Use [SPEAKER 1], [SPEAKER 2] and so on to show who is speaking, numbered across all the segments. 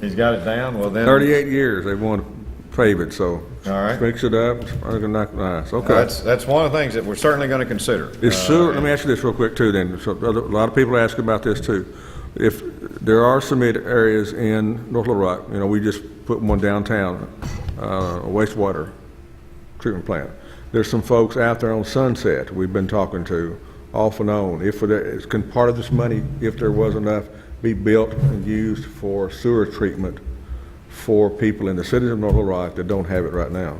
[SPEAKER 1] He's got it down, well then.
[SPEAKER 2] Thirty-eight years they want to pave it, so.
[SPEAKER 1] All right.
[SPEAKER 2] Mix it up, sprinkle it, knock it nice, okay.
[SPEAKER 1] That's, that's one of the things that we're certainly gonna consider.
[SPEAKER 2] Is
[SPEAKER 1] Uh,
[SPEAKER 2] sewer, let me ask you this real quick too then, so, a lot of people ask about this too. If there are some ed- areas in North Little Rock, you know, we just put one downtown, uh, wastewater treatment plant. There's some folks out there on Sunset we've been talking to off and on. If there, is- can part of this money, if there was enough, be built and used for sewer treatment for people in the city of North Little Rock that don't have it right now?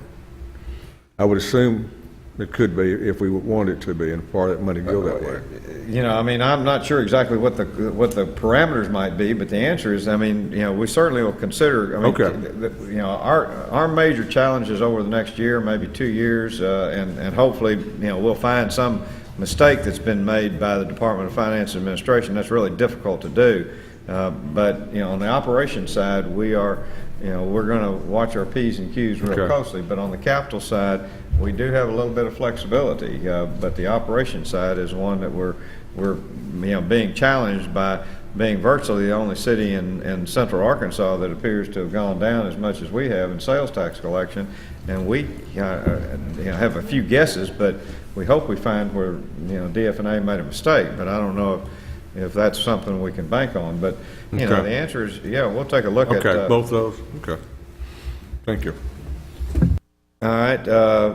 [SPEAKER 2] I would assume it could be if we want it to be and part of that money go that way.
[SPEAKER 1] Uh, You know, I mean, I'm not sure exactly what the, what the parameters might be, but the answer is, I mean, you know, we certainly will consider, I mean,
[SPEAKER 2] Okay.
[SPEAKER 1] th- th- you know, our, our major challenges over the next year, maybe two years, uh, and, and hopefully, you know, we'll find some mistake that's been made by the Department of Finance and Administration. That's really difficult to do. Uh, But, you know, on the operations side, we are, you know, we're going to watch our Ps and Qs real
[SPEAKER 2] Okay.
[SPEAKER 1] closely closely, but on the capital side, we do have a little bit of flexibility, uh, but the operation side is one that we're, we're, you know, being challenged by being virtually the only city in, in central Arkansas that appears to have gone down as much as we have in sales tax collection. And we, uh, uh, you know, have a few guesses, but we hope we find where, you know, DFNA made a mistake, but I don't know if, if that's something we can bank on, but, you know,
[SPEAKER 2] Okay.
[SPEAKER 1] the answer is, yeah, we'll take a look at.
[SPEAKER 2] Okay,
[SPEAKER 1] uh,
[SPEAKER 2] both those, okay. Thank you.
[SPEAKER 1] All right, uh,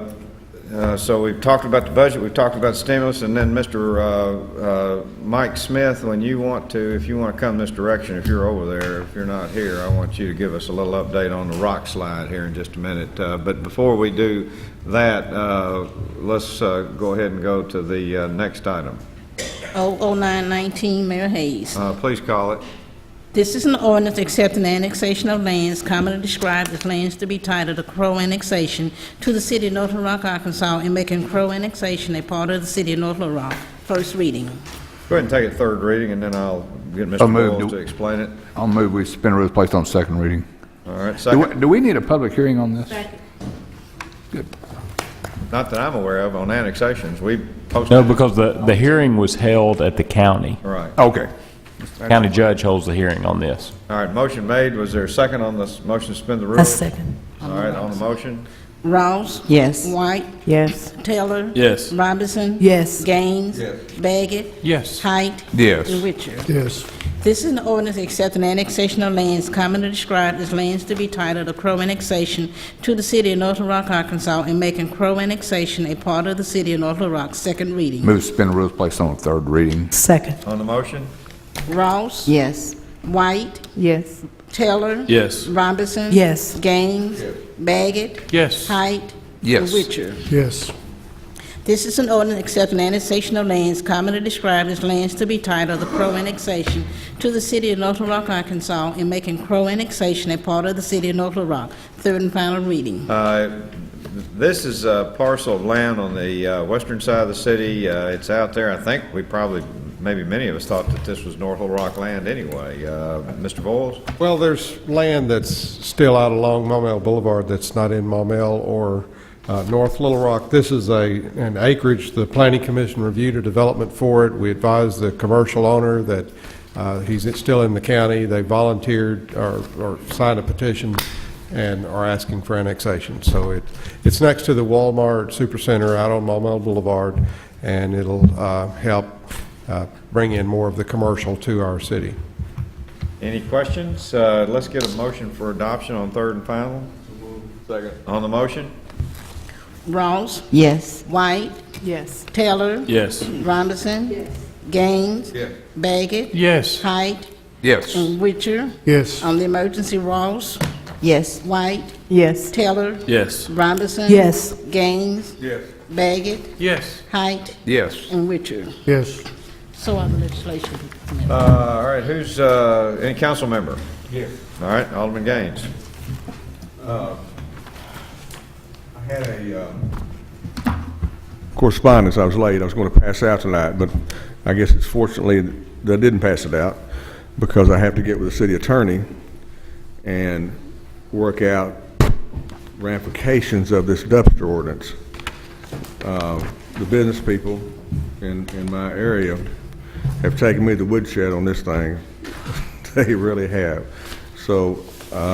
[SPEAKER 1] uh, so we've talked about the budget, we've talked about stimulus, and then Mr. uh, uh, Mike Smith, when you want to, if you want to come this direction, if you're over there, if you're not here, I want you to give us a little update on the rock slide here in just a minute. Uh, But before we do that, uh, let's uh, go ahead and go to the uh, next item.
[SPEAKER 3] 00919, Mayor Hayes.
[SPEAKER 1] Uh, Please call it.
[SPEAKER 3] This is an ordinance accepting the annexation of lands commonly described as lands to be titled a Crow annexation to the city of North Little Rock, Arkansas, and making Crow annexation a part of the city of North Little Rock. First reading.
[SPEAKER 1] Go ahead and take it third reading, and then I'll get
[SPEAKER 4] So
[SPEAKER 1] Mr.
[SPEAKER 4] moved.
[SPEAKER 1] Boyle to explain it.
[SPEAKER 4] I'll move we suspend rules placed on second reading.
[SPEAKER 1] All right,
[SPEAKER 4] Do
[SPEAKER 1] second,
[SPEAKER 4] we, do we need a public hearing on this?
[SPEAKER 1] not that I'm aware of, on annexations, we posted.
[SPEAKER 5] No, because the, the hearing was held at the county.
[SPEAKER 1] All right.
[SPEAKER 4] Okay.
[SPEAKER 5] County judge holds the hearing on this.
[SPEAKER 1] All right, motion made. Was there a second on this motion to suspend the rules?
[SPEAKER 6] A second.
[SPEAKER 1] All right, on the motion?
[SPEAKER 3] Rawls.
[SPEAKER 6] Yes.
[SPEAKER 3] White.
[SPEAKER 6] Yes.
[SPEAKER 3] Taylor.
[SPEAKER 5] Yes.
[SPEAKER 3] Robinson.
[SPEAKER 6] Yes.
[SPEAKER 3] Gaines. Baggett.
[SPEAKER 5] Yes.
[SPEAKER 3] Height.
[SPEAKER 4] Yes.
[SPEAKER 3] And Richard.
[SPEAKER 7] Yes,
[SPEAKER 3] This is an ordinance accepting annexation of lands commonly described as lands to be titled a Crow annexation to the city of North Little Rock, Arkansas, and making Crow annexation a part of the city of North Little Rock. Second reading.
[SPEAKER 4] Move suspend rules placed on third reading.
[SPEAKER 6] Second.
[SPEAKER 1] On the motion?
[SPEAKER 3] Ross.
[SPEAKER 6] Yes.
[SPEAKER 3] White.
[SPEAKER 6] Yes.
[SPEAKER 3] Taylor.
[SPEAKER 5] Yes.
[SPEAKER 3] Robinson.
[SPEAKER 6] Yes.
[SPEAKER 3] Gaines. Baggett.
[SPEAKER 5] Yes.
[SPEAKER 3] Height.
[SPEAKER 4] Yes.
[SPEAKER 3] Richard.
[SPEAKER 7] yes,
[SPEAKER 3] This is an ordinance accepting annexation of lands commonly described as lands to be titled the Crow annexation to the city of North Little Rock, Arkansas, and making Crow annexation a part of the city of North Little Rock. Third and final reading.
[SPEAKER 1] Uh, This is a parcel of land on the uh, western side of the city. Uh, It's out there. I think we probably, maybe many of us thought that this was North Little Rock land anyway. Uh, Mr. Boyles?
[SPEAKER 8] Well, there's land that's still out along Maumelle Boulevard that's not in Maumelle or uh, North Little Rock. This is a, an acreage, the Planning Commission reviewed a development for it. We advised the commercial owner that uh, he's still in the county. They volunteered or or signed a petition and are asking for annexation. So it, it's next to the Walmart Supercenter out on Maumelle Boulevard, and it'll uh, help uh, bring in more of the commercial to our city.
[SPEAKER 1] Any questions? Uh, Let's get a motion for adoption on third and final. Second. On the motion?
[SPEAKER 3] Ross.
[SPEAKER 6] Yes.
[SPEAKER 3] White.
[SPEAKER 6] Yes.
[SPEAKER 3] Taylor.
[SPEAKER 5] Yes.
[SPEAKER 3] Robinson. Gaines. Baggett.
[SPEAKER 5] Yes.
[SPEAKER 3] Height.
[SPEAKER 4] Yes.
[SPEAKER 3] And Witcher.
[SPEAKER 7] yes,
[SPEAKER 3] On the emergency, Ross.
[SPEAKER 6] Yes.
[SPEAKER 3] White.
[SPEAKER 6] Yes.
[SPEAKER 3] Taylor.
[SPEAKER 5] Yes.
[SPEAKER 3] Robinson.
[SPEAKER 6] Yes.
[SPEAKER 3] Gaines.
[SPEAKER 2] Yes.
[SPEAKER 3] Baggett.
[SPEAKER 5] Yes.
[SPEAKER 3] Height.
[SPEAKER 4] Yes.
[SPEAKER 3] And Witcher.
[SPEAKER 7] yes.
[SPEAKER 3] So are the legislation.
[SPEAKER 1] Uh, All right, who's, uh, any council member? Here. All right, Alderman Gaines.
[SPEAKER 2] I had a, um, Correspondence, I was late, I was going to pass out tonight, but I guess it's fortunately that I didn't pass it out, because I have to get with the city attorney and work out ramifications of this dumpster ordinance. Uh, The business people in, in my area have taken me to the woodshed on this thing. They really have. So uh,